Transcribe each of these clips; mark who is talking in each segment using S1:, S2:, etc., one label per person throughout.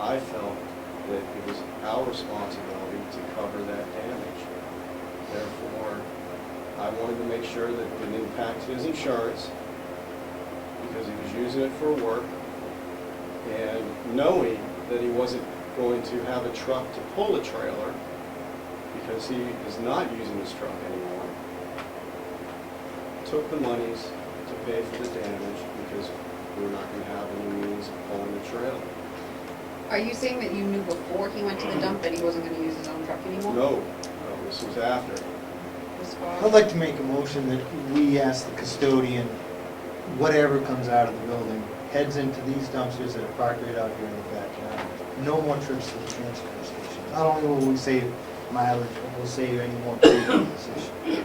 S1: I felt that it was our responsibility to cover that damage. Therefore, I wanted to make sure that it didn't impact his insurance, because he was using it for work, and knowing that he wasn't going to have a truck to pull a trailer, because he is not using his truck anymore, took the monies to pay for the damage, because we were not gonna have any means of pulling the trailer.
S2: Are you saying that you knew before he went to the dump that he wasn't gonna use his own truck anymore?
S1: No, no, this was after.
S2: As
S3: I'd
S2: far as,
S3: like to make a motion that we ask the custodian, whatever comes out of the building, heads into these dumpsters that are parked right out here in the backyard. No more trips to the transfer station. Not only will we save mileage, but we'll save any more fuel at the station.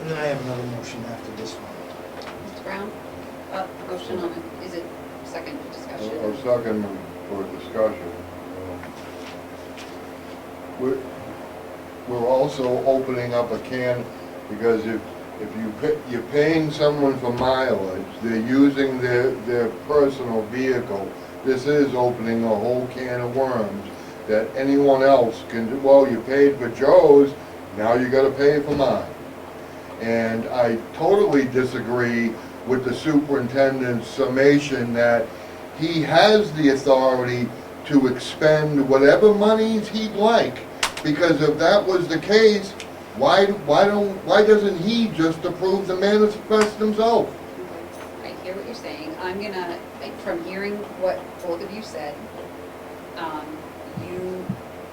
S3: And then I have another motion after this one.
S2: Mr. Brown, uh, motion on it, is it second discussion?
S4: I was talking for discussion. um, We're, we're also opening up a can, because if, if you, pa- you're paying someone for mileage, they're using their, their personal vehicle, this is opening a whole can of worms that anyone else can, do. well, you paid for Joe's, now you gotta pay for mine. And I totally disagree with the superintendent's summation that he has the authority to expend whatever monies he'd like. Because if that was the case, why, why don't, why doesn't he just approve the manifest himself?
S2: I hear what you're saying. I'm gonna, like, from hearing what both of you said, um, you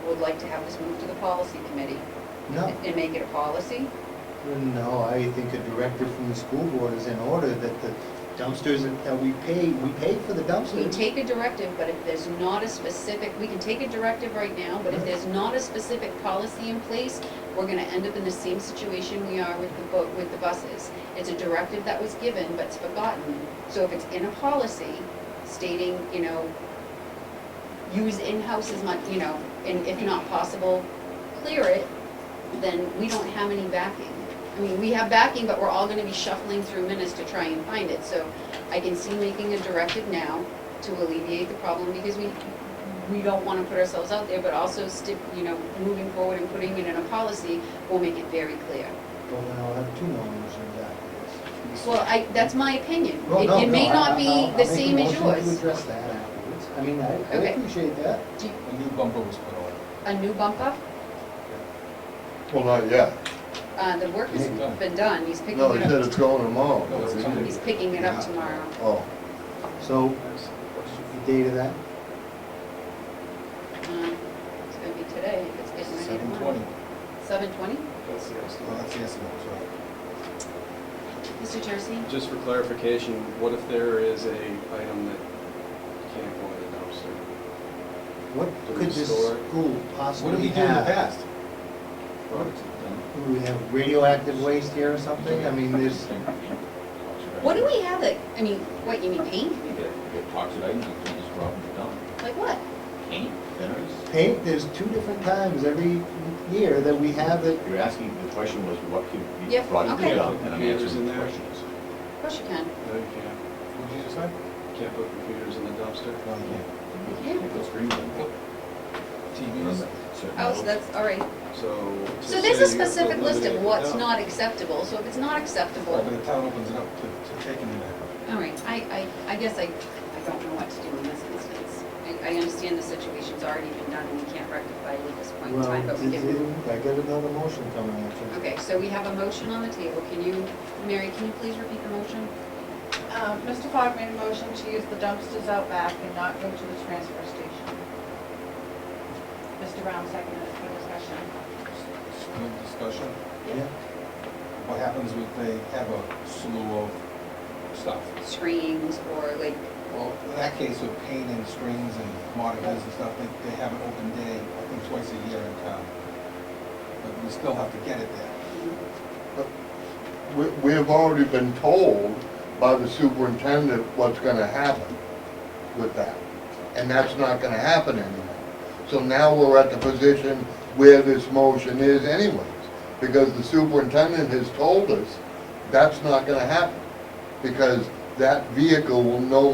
S2: would like to have this moved to the policy committee
S3: No,
S2: and make it a policy?
S3: no, I think a directive from the school board is in order that the dumpsters that- that we pay, we pay for the
S2: We
S3: dumpsters.
S2: take a directive, but if there's not a specific, we can take a directive right now, but if there's not a specific policy in place, we're gonna end up in the same situation we are with the boat, with the buses. It's a directive that was given, but it's forgotten. So if it's in a policy stating, you know, use in-house as much, you know, and if not possible, clear it, then we don't have any backing. I mean, we have backing, but we're all gonna be shuffling through minutes to try and find it, so I can see making a directive now to alleviate the problem, because we, we don't wanna put ourselves out there, but also stick, you know, moving forward and putting it in a policy will make it very clear.
S3: Well, then I'll have two more motions after this.
S2: Well, I, that's my opinion.
S3: Well,
S2: It,
S3: no,
S2: it may
S3: no, I-
S2: not
S3: I-
S2: be
S3: I'll-
S2: the same as
S3: I'll make a motion to
S2: yours.
S3: address that afterwards. I mean, I I
S2: Okay.
S3: appreciate that.
S2: Do you-
S5: A new bumper was put on.
S2: A new bump up,
S4: Well, not yet.
S2: uh, the work has
S5: It's done.
S2: been done, he's picking
S4: No, he
S2: it
S4: said
S2: up,
S4: it's going tomorrow.
S5: No, it's coming.
S2: he's picking it up tomorrow.
S4: Oh,
S3: So,
S1: That's the question.
S3: the date of that,
S2: Um, It's gonna be today, if it's getting ready
S5: Seven
S2: tomorrow.
S5: twenty.
S2: Seven twenty?
S1: That's the
S3: well,
S1: estimate.
S3: that's yesterday, so.
S2: Mr. Jersey?
S1: Just for clarification, what if there is a item that can't go in the dumpster?
S3: What
S1: Do
S3: could
S1: we
S3: this
S1: store it?
S3: school
S5: What did
S3: possibly
S5: we do in the
S3: have?
S5: past?
S3: Do we have radioactive waste here or something? I mean, there's,
S2: What do we have that, I mean, what, you mean paint?
S6: You get, you get toxic items, you can't just drop them in the dump.
S2: Like what?
S6: Paint, thinners.
S3: paint, there's two different times every year that we have it.
S6: You're asking, the question was what could be
S2: Yeah,
S6: brought into
S2: okay.
S6: the dump, and I'm
S1: Computers in
S6: answering the
S1: there.
S6: question. is-
S2: Of course you can.
S1: No, you can't.
S5: What did you just say?
S1: Can't put computers in the dumpster.
S3: Well, yeah.
S2: Yeah.
S6: It goes green.
S5: TVs?
S6: Certain
S2: Oh, so
S6: levels.
S2: that's, all right.
S1: So. to
S2: So there's a
S1: say you have to
S2: specific list
S1: eliminate
S2: of
S1: the
S2: what's
S1: dump-
S2: not acceptable, so if it's not acceptable,
S5: Well, but the town opens it up to, to taking it out.
S2: all right, I, I, I guess I, I don't know what to do in this instance. I, I understand the situation's already been done and we can't rectify it at this point in
S3: Well,
S2: time, but we
S3: it-
S2: can.
S3: it- I got another motion coming at you.
S2: Okay, so we have a motion on the table. Can you, Mary, can you please repeat the motion?
S7: Um, Mr. Fogg made a motion to use the dumpsters out back and not go to the transfer station. Mr. Brown seconded it for discussion.
S5: Good discussion.
S3: Yeah.
S5: What happens if they have a slew of stuff?
S2: Screens or like,
S5: Well, in that case with paint and strings and markers and stuff, they, they have an open day, I think twice a year in town. But we still have to get it there.
S4: we, we have already been told by the superintendent what's gonna happen with that. And that's not gonna happen anymore. So now we're at the position where this motion is anyways, because the superintendent has told us that's not gonna happen, because that vehicle will no